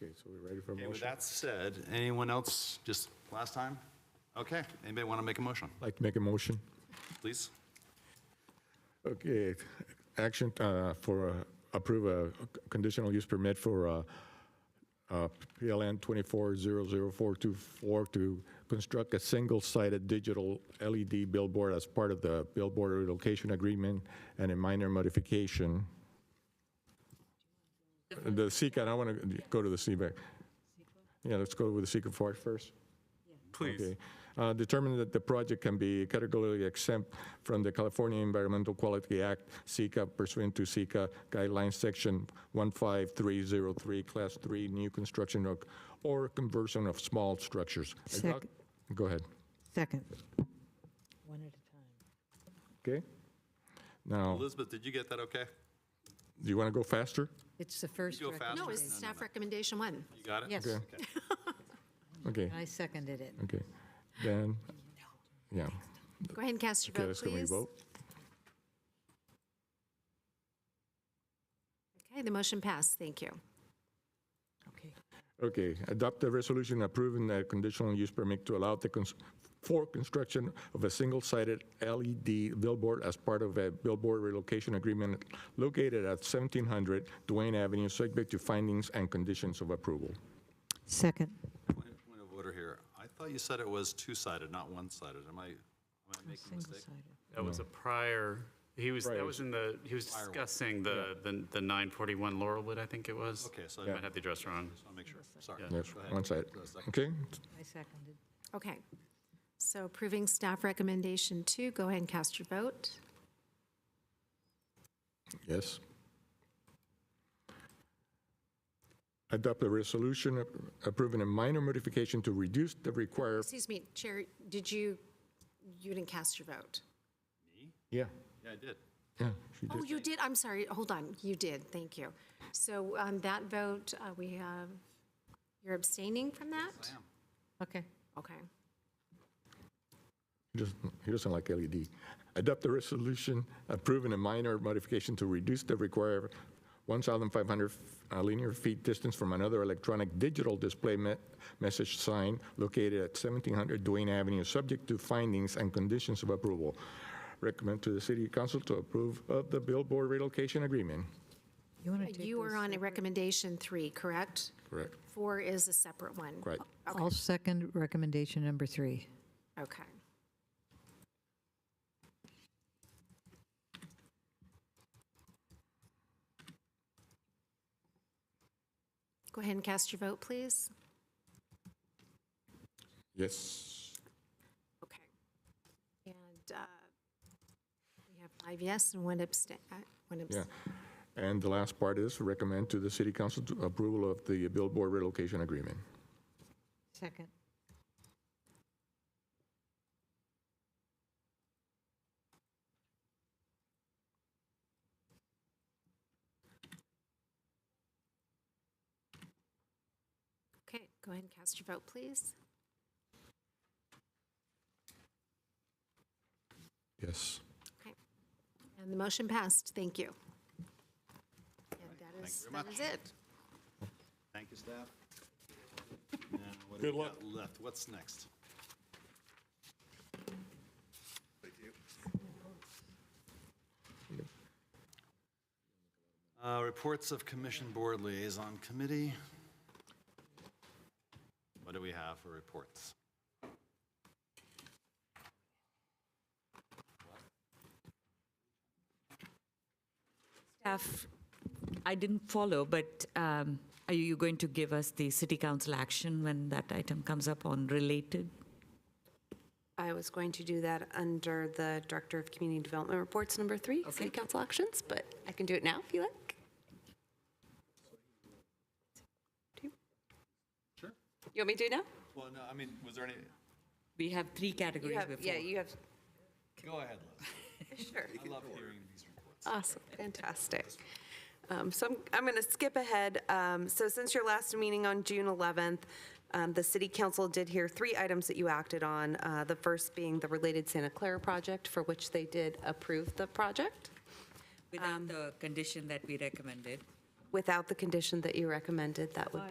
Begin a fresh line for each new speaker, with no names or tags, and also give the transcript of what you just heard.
Okay, so we're ready for a
Okay, with
motion?
that said, anyone else, just last time? Okay, anybody want to make a motion,
Like to make a motion?
please?
Okay, action uh, for, uh, approve a conditional use permit for uh, uh, PLN 2400424 to construct a single-sided digital LED billboard as part of the billboard relocation agreement and a minor modification. The SECA, I want to go to the CBAC. Yeah, let's go with the SECA for it first. Please. Determine that the project can be categorically exempt from the California Environmental Quality Act, SECA pursuant to SECA guidelines, section 15303, class 3, new construction or- or conversion of small structures. I
Sec-
thought- Go ahead.
Second. One at a time.
Okay? Now,
Elizabeth, did you get that okay?
do you want to go faster?
It's the first
go faster.
recommendation.
No, it's staff recommendation one.
You got it?
Yes,
Okay. Okay,
I seconded it.
okay. Then, yeah.
Go ahead and cast your
Okay,
vote,
let's go, we
please.
vote.
Okay, the motion passed, thank you.
Okay.
Okay, adopt a resolution approving a conditional use permit to allow the, cons- for construction of a single-sided LED billboard as part of a billboard relocation agreement located at 1700 Duane Avenue, subject to findings and conditions of approval.
Second.
Point point of order here. I thought you said it was two-sided, not one-sided. Am I, am I making a mistake?
That was a prior, he was, that was in the, he was discussing the, the the 941 Laurelwood, I think it was.
Okay, so I
I
just
might have the address wrong.
want to make sure, sorry.
Yes, one side. Okay,
I seconded.
Okay. So approving staff recommendation two, go ahead and cast your vote.
yes. Adopt a resolution approving a minor modification to reduce the required,
Excuse me, Chair, did you, you didn't cast your vote?
yeah,
Yeah, I did.
yeah, she did.
Oh, you did, I'm sorry, hold on, you did, thank you. So on that vote, uh, we have, you're abstaining from that?
I am.
Okay.
Okay.
He doesn't, he doesn't like LED. Adopt a resolution approving a minor modification to reduce the required 1,500 uh, linear feet distance from another electronic digital display me- message sign located at 1700 Duane Avenue, subject to findings and conditions of approval. Recommend to the city council to approve of the billboard relocation agreement.
You want to take
You
those
are on a
separate?
recommendation three, correct?
Correct.
Four is a separate one.
Right.
I'll second recommendation number three.
Okay. Go ahead and cast your vote, please.
Yes.
Okay. And uh, we have five yes and one abstain, uh, one
Yeah.
abstain.
And the last part is recommend to the city council to approval of the billboard relocation agreement.
Second.
Okay, go ahead and cast your vote, please.
Yes.
Okay. And the motion passed, thank you. And that is, that is it.
Thank you, staff. Good luck. Left, what's next? Uh, Reports of Commission Board Liaison Committee. What do we have for reports?
Staff, I didn't follow, but um, are you going to give us the city council action when that item comes up on related?
I was going to do that under the Director of Community Development Reports, number three, City Council Actions, but I can do it now if you like. Sure. You want me to do it now?
Well, no, I mean, was there any?
We have three
You
categories
have,
before.
yeah, you have,
Go ahead,
sure.
Liz. I love hearing these reports.
Awesome, fantastic. Um, So I'm, I'm going to skip ahead. Um, So since your last meeting on June 11th, um, the city council did hear three items that you acted on. uh, The first being the related Santa Clara project, for which they did approve the project um,
Without the condition that we recommended.
without the condition that you recommended. That would be